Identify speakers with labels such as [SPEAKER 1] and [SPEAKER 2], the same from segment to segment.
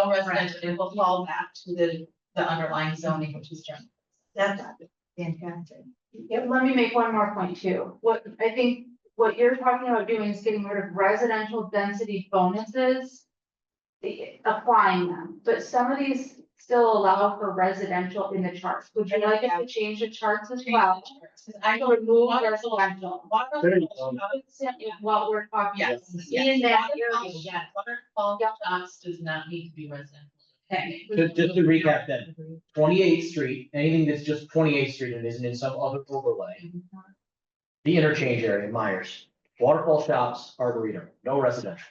[SPEAKER 1] all residential, it will fall back to the, the underlying zoning, which is general.
[SPEAKER 2] That's fantastic.
[SPEAKER 3] Yeah, let me make one more point too. What, I think what you're talking about doing is getting rid of residential density bonuses. the- Applying them, but some of these still allow for residential in the charts. Would you like us to change the charts as well?
[SPEAKER 1] Because I go to
[SPEAKER 3] Remove
[SPEAKER 1] water
[SPEAKER 3] residential.
[SPEAKER 1] Water.
[SPEAKER 4] There you go.
[SPEAKER 3] What we're talking. about.
[SPEAKER 1] Yes.
[SPEAKER 3] In that
[SPEAKER 1] Waterfall-
[SPEAKER 3] area.
[SPEAKER 1] yeah, Waterfall
[SPEAKER 3] Yep.
[SPEAKER 1] docks does not need to be residential.
[SPEAKER 3] Okay.
[SPEAKER 4] Just, just to recap then, twenty eighth street, anything that's just twenty eighth street and isn't in some other overlay. The interchange area, Myers, waterfall shops, arboretum, no residential.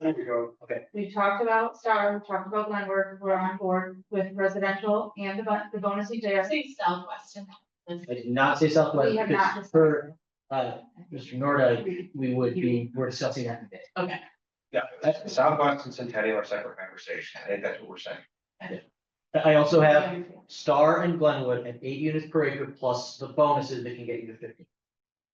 [SPEAKER 5] There we go.
[SPEAKER 3] We talked about Star, we talked about Glenwood, we're on board with residential and the bon- the bonus we
[SPEAKER 1] I
[SPEAKER 3] did.
[SPEAKER 1] say southwestern.
[SPEAKER 4] I did not say southwest,
[SPEAKER 3] We have not
[SPEAKER 4] because
[SPEAKER 3] discussed
[SPEAKER 4] per, uh, Mr. Norda, we would be, we're discussing that today.
[SPEAKER 1] Okay.
[SPEAKER 5] Yeah, that's Southwest and Centennial are separate conversation. I think that's what we're saying.
[SPEAKER 4] I also have Star and Glenwood at eight units per acre plus the bonuses that can get you to fifty.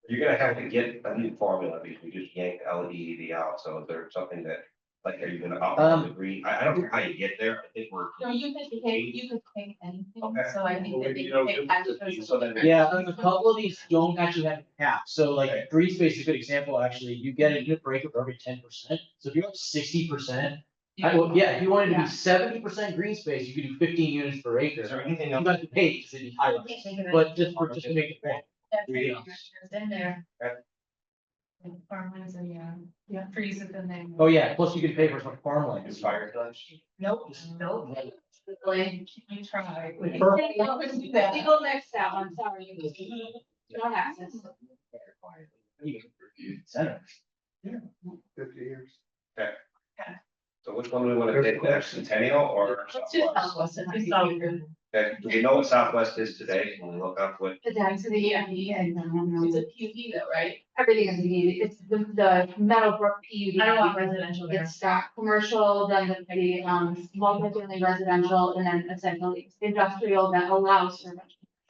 [SPEAKER 5] You're gonna have to get a new formula because we just yanked L E E D out. So is there something that, like, are you gonna up
[SPEAKER 4] Um,
[SPEAKER 5] the green? I, I don't know how you get there. I think we're.
[SPEAKER 1] No, you could pick, you could pick anything,
[SPEAKER 5] Okay.
[SPEAKER 1] so I
[SPEAKER 5] Well,
[SPEAKER 1] think that
[SPEAKER 5] we-
[SPEAKER 1] they
[SPEAKER 5] you know,
[SPEAKER 1] pick.
[SPEAKER 5] give us the piece so that it-
[SPEAKER 4] Yeah, and a couple of these don't actually have a cap, so
[SPEAKER 5] Okay.
[SPEAKER 4] like green space is a good example, actually, you get a unit per acre for every ten percent, so if you're up sixty percent. I, well, yeah, if you wanted to
[SPEAKER 3] Yeah.
[SPEAKER 4] be seventy percent green space, you could do fifteen units per acre,
[SPEAKER 5] Is there anything
[SPEAKER 4] you
[SPEAKER 5] else?
[SPEAKER 4] got to pay the city highway, but just for, just to make a point.
[SPEAKER 1] That's
[SPEAKER 4] Three
[SPEAKER 1] right, there's In there.
[SPEAKER 5] Okay.
[SPEAKER 1] And Farmlands and, yeah, yeah, trees have been there.
[SPEAKER 4] Oh, yeah, plus you could pay for some farmland.
[SPEAKER 5] Is fire clutch?
[SPEAKER 1] Nope, nope. Like, we try.
[SPEAKER 4] Perfect.
[SPEAKER 1] We do that.
[SPEAKER 3] Legal next that one, sorry. You don't have this.
[SPEAKER 4] Center.
[SPEAKER 5] Fifty years. Okay. So which one do we wanna take next, Centennial or
[SPEAKER 1] Let's um, do
[SPEAKER 5] Southwest?
[SPEAKER 1] Southwestern, I think.
[SPEAKER 5] Okay, do we know what Southwest is today when we look up what
[SPEAKER 3] The density and the, and
[SPEAKER 1] It's a
[SPEAKER 3] um,
[SPEAKER 1] PUD though, right?
[SPEAKER 3] everything is needed, it's the, the Meadowbrook PUD.
[SPEAKER 1] I don't want residential there.
[SPEAKER 3] It's got commercial, then the, the, um, multifamily residential, and then essentially industrial that allows for.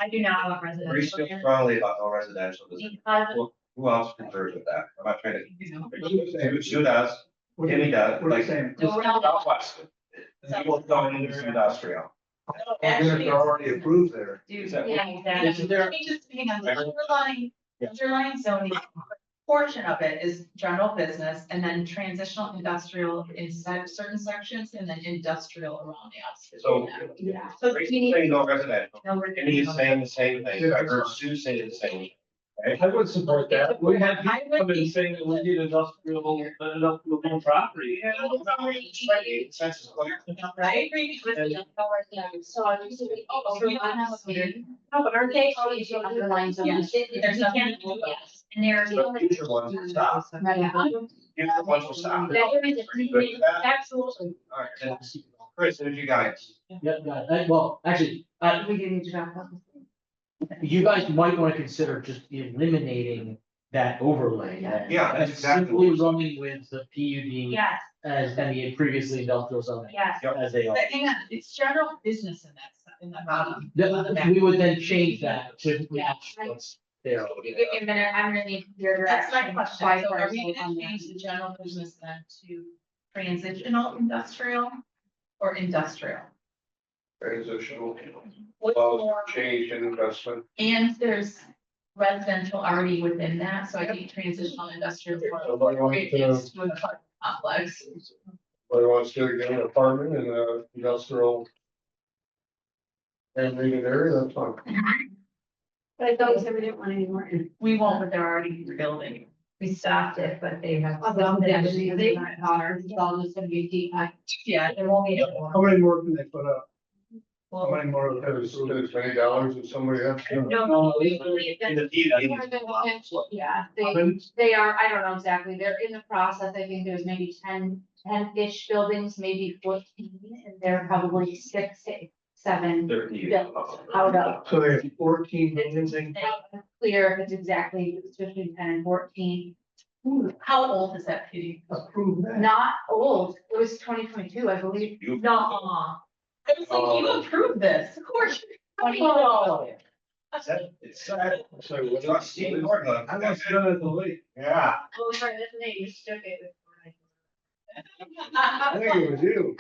[SPEAKER 1] I do not want
[SPEAKER 5] We feel
[SPEAKER 1] residential there.
[SPEAKER 5] strongly about no residential, does it-
[SPEAKER 1] Because,
[SPEAKER 5] who else concurs with that? I'm not trying to.
[SPEAKER 1] you know,
[SPEAKER 5] Who does, Timmy
[SPEAKER 6] uh,
[SPEAKER 5] does, like.
[SPEAKER 1] No, we're not-
[SPEAKER 5] Southwest. People going into industrial.
[SPEAKER 1] actually, it's-
[SPEAKER 5] approved there.
[SPEAKER 1] Dude,
[SPEAKER 5] Is that-
[SPEAKER 1] yeah, exactly.
[SPEAKER 4] Is there-
[SPEAKER 1] Let me just hang on, the
[SPEAKER 5] Yeah.
[SPEAKER 1] underlying,
[SPEAKER 4] Yeah.
[SPEAKER 1] underlying zoning portion of it is general business and then transitional industrial inside of certain sections and then industrial around the outskirts.
[SPEAKER 5] So-
[SPEAKER 3] Yeah.
[SPEAKER 1] So we
[SPEAKER 5] Rachel's
[SPEAKER 1] need.
[SPEAKER 5] saying no residential,
[SPEAKER 1] no, we're-
[SPEAKER 5] Timmy is saying the same thing, I heard Sue say the same.
[SPEAKER 6] I would support that. We had people
[SPEAKER 1] I would
[SPEAKER 6] come
[SPEAKER 1] be-
[SPEAKER 6] and saying that we need industrial, uh, industrial property.
[SPEAKER 5] Consensus, well,
[SPEAKER 1] I agree with you.
[SPEAKER 3] So I'm just.
[SPEAKER 1] Oh, so we don't have a meeting.
[SPEAKER 3] No, but aren't they?
[SPEAKER 1] always the
[SPEAKER 3] underlying
[SPEAKER 1] zones? There's nothing.
[SPEAKER 3] And there's.
[SPEAKER 5] but Future ones will stop, future ones will stop. Pretty good for that.
[SPEAKER 3] Absolutely.
[SPEAKER 5] All right, then, Chris, who's you guys?
[SPEAKER 4] Yeah, yeah, that- well, actually, uh,
[SPEAKER 3] We do need to wrap up.
[SPEAKER 4] you guys might wanna consider just eliminating that overlay. then,
[SPEAKER 5] Yeah, that's
[SPEAKER 4] and
[SPEAKER 5] exactly
[SPEAKER 4] Simply
[SPEAKER 5] what-
[SPEAKER 4] running with the PUD
[SPEAKER 3] Yes,
[SPEAKER 4] as, and the previously industrial zoning,
[SPEAKER 3] yes.
[SPEAKER 4] as they are.
[SPEAKER 1] But hang on, it's general business in that, se- in the bottom.
[SPEAKER 4] Then we would then change that to match
[SPEAKER 3] Yeah.
[SPEAKER 4] what's there.
[SPEAKER 3] Give me a minute, I'm gonna need your
[SPEAKER 1] That's
[SPEAKER 3] direction.
[SPEAKER 1] my question,
[SPEAKER 3] Why
[SPEAKER 1] so are
[SPEAKER 3] first
[SPEAKER 1] we
[SPEAKER 3] on
[SPEAKER 1] gonna
[SPEAKER 3] that?
[SPEAKER 1] change the general business then to transitional industrial or industrial?
[SPEAKER 5] Transitional,
[SPEAKER 1] What's more,
[SPEAKER 5] change in investment.
[SPEAKER 1] and there's residential already within that, so I think transitional industrial.
[SPEAKER 7] So what do you want
[SPEAKER 1] It
[SPEAKER 7] to-
[SPEAKER 1] is to a complex,
[SPEAKER 7] Whether wants to get an apartment in a industrial. And leave it there, that's fine.
[SPEAKER 3] But I thought we said we didn't want any more. in-
[SPEAKER 1] we won't, but they're already rebuilding. We stopped it, Oh, but they have.
[SPEAKER 3] Although they actually, they want power, it's all just gonna be deep.
[SPEAKER 1] Yeah, there won't be. any more.
[SPEAKER 7] How many more can they put up? How
[SPEAKER 1] Well,
[SPEAKER 7] many more? There's, there's many dollars if somebody has. to.
[SPEAKER 1] No,
[SPEAKER 6] No,
[SPEAKER 1] we-
[SPEAKER 6] it's-
[SPEAKER 1] that's-
[SPEAKER 5] In the PUD.
[SPEAKER 3] Yeah, they, they are, I don't know exactly, they're in the process, I think there's maybe 10 10-ish buildings, maybe fourteen, and they're probably six, eight, seven.
[SPEAKER 5] They're Uh, PUD.
[SPEAKER 3] Out of.
[SPEAKER 7] So they have fourteen million
[SPEAKER 3] It's
[SPEAKER 7] things.
[SPEAKER 3] not Clear if it's exactly between ten and fourteen,
[SPEAKER 1] How old is that kitty?
[SPEAKER 7] Approve that.
[SPEAKER 3] not old, it was twenty twenty-two, I believe.
[SPEAKER 5] You-
[SPEAKER 1] No. I was like, you approved this, of course.
[SPEAKER 3] Oh.
[SPEAKER 1] Well,
[SPEAKER 5] It's sad.
[SPEAKER 7] So what
[SPEAKER 5] Not seeing more of
[SPEAKER 7] I
[SPEAKER 5] them.
[SPEAKER 7] was still at the lake.
[SPEAKER 5] Yeah.
[SPEAKER 3] Oh, sorry, that's me, you shook it.
[SPEAKER 7] I think it was you.